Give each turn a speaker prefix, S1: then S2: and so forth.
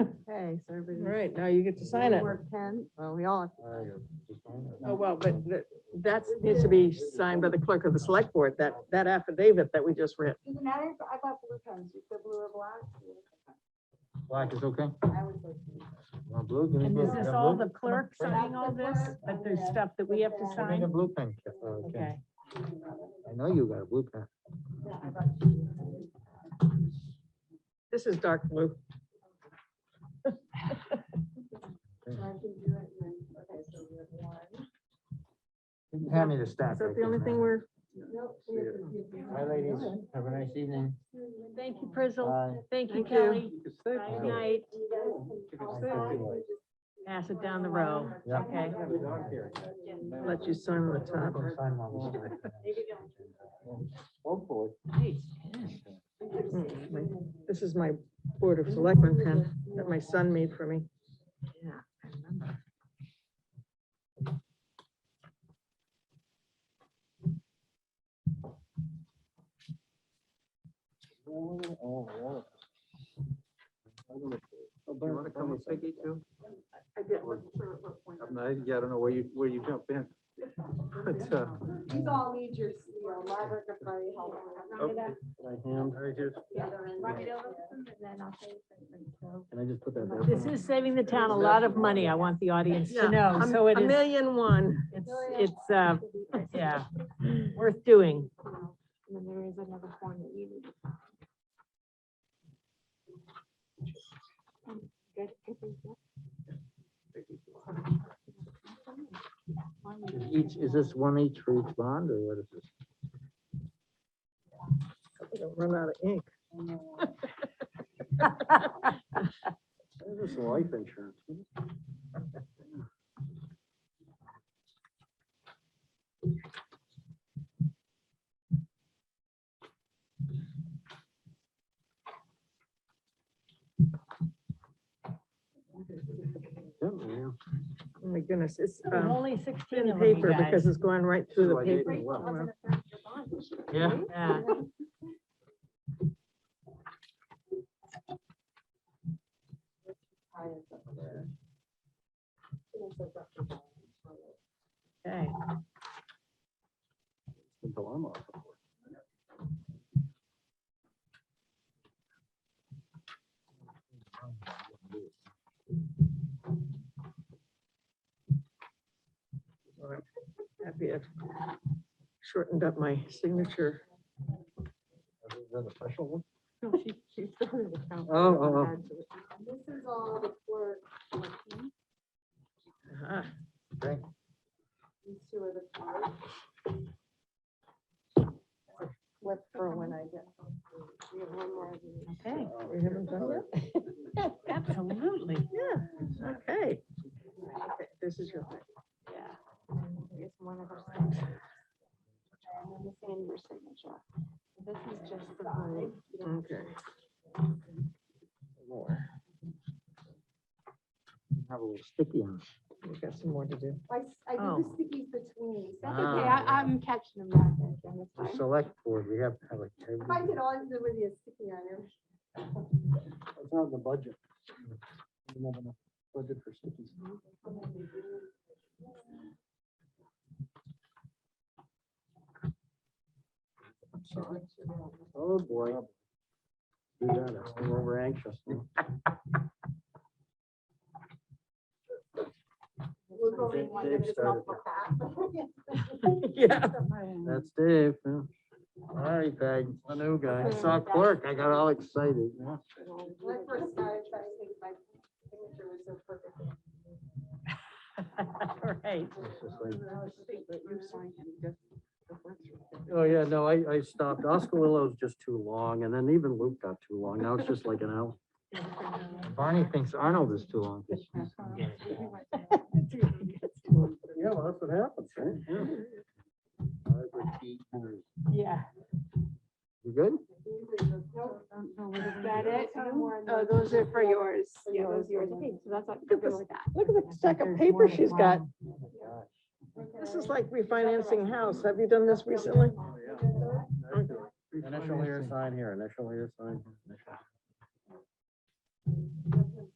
S1: Okay, so
S2: All
S1: everybody.
S2: right, now you get to sign it.
S1: Mark Pen, Mm-hmm. well, we all have to sign.
S2: Oh, well, but that, that needs to be signed by the clerk of the select board, that, that affidavit that we just read.
S3: Does it matter? if I bought blue pens. You said blue or black?
S4: Black is okay.
S3: I would go blue.
S4: Want blue? Give me
S5: And
S4: blue.
S5: is this
S4: Got
S5: all
S4: blue?
S5: the clerk
S3: Bring it.
S5: signing all this, but there's stuff that we have to
S4: Give me
S5: sign?
S4: the blue pen. Ca- uh,
S5: Okay.
S4: Ken. I know you got a blue pen.
S3: Yeah, I bought blue pens.
S2: This is dark blue.
S3: So I can do it and then- okay, so we have one.
S4: You can Hand me the stack. uh,
S2: Is that
S4: right
S2: the
S4: there,
S2: only thing
S4: man.
S2: we're,
S3: Nope, we have to give
S4: Hi, ladies. Have a nice evening.
S3: one.
S5: Thank you, Prizzle.
S4: Bye.
S5: Thank you,
S2: Thank you.
S5: Kelly.
S4: Good
S5: Bye, night.
S3: You guys can all
S4: Thank you.
S3: sign and just-
S5: Pass it down the row.
S4: Yeah.
S5: Okay.
S2: let you sign on the top.
S3: Maybe don't.
S4: Hopefully.
S2: Mm, my- This is my board of selectmen pen that my son made for me.
S4: Oh,
S6: Do you want to come with Peggy too?
S2: I did,
S6: I'm not, yeah, I don't know where you, where you jump in. But, uh,
S3: You all need your, your Margaret could probably help.
S6: Okay. I just,
S3: Run it over and then I'll say.
S4: Can I just put that there?
S5: This is saving the town a lot of money. I want the audience to know. So it
S2: A
S5: is,
S2: million one.
S5: it's,
S1: Oh,
S5: it's, uh, yeah, worth doing.
S3: And then there is another form that you need. to sign. Um, good, I think that-
S4: Is Each, is this one each for each bond or what is this?
S2: I'm gonna Run out of ink.
S4: This is life insurance.
S2: Oh my goodness, it's
S5: There's
S2: um,
S5: Only sixteen
S2: thin
S5: of them, you
S2: paper because
S5: guys.
S2: it's going right through the
S6: Sure, I did.
S2: paper.
S6: Great,
S3: That
S2: Wow.
S3: wasn't a third of your bond.
S4: Yeah.
S5: Yeah.
S3: Tie it up there. It's a rough bond.
S5: Okay.
S4: Until I'm off.
S2: Happy I've shortened up my signature.
S4: Is that a special one?
S1: No, she, she started the count.
S4: Oh, oh, oh.
S3: This is all the clerk. These
S2: Ah,
S3: two are the clerk. Flip for when I get. home. We have one more. of these.
S5: Okay.
S2: We haven't done that?
S5: Absolutely.
S2: Yeah, okay. Okay, This is your,
S3: Yeah. I guess one of our. signatures. And then this is your signature. This is just the. one. You don't have to
S2: okay.
S4: Have a little sticky on it.
S2: We've got some more to do.
S3: I, s- I
S5: Oh.
S3: did the stickies between. these. That's okay.
S4: Ah,
S3: I,
S4: yeah.
S3: I'm catching them back. I think, that's
S4: The
S3: fine.
S4: select board, we have to have like.
S3: If I could always do with you sticky on it.
S4: It's not the budget. We don't have enough Budget for stickies. Oh, boy. Do that, I'm over anxious.
S3: We'll go in one
S4: Dave
S3: and just not
S4: started
S3: look back.
S2: Yeah.
S4: That's Dave. yeah. All right, Peg. I know, guy. I saw clerk. I got all excited. yeah.
S3: When I first started trying to think my signature was so perfect.
S5: All right.
S4: It's just like-
S1: It's
S4: Oh, yeah, no, I, I stopped. Oscalillo's just too long, and then even Luke got too long. Now it's just like an hour. Barney thinks Arnold is too long. Yeah, well, that's what happens, right?
S5: Yeah.
S4: You good?
S3: Is that it?
S1: Oh, those are for yours.
S3: Yeah, those are yours. Okay, so that's, not-
S2: this.
S3: go with that.
S2: Look at the stack of paper she's got. This is like refinancing house. Have you done this recently?
S4: Initial here, sign here, initial here, sign. here, initial.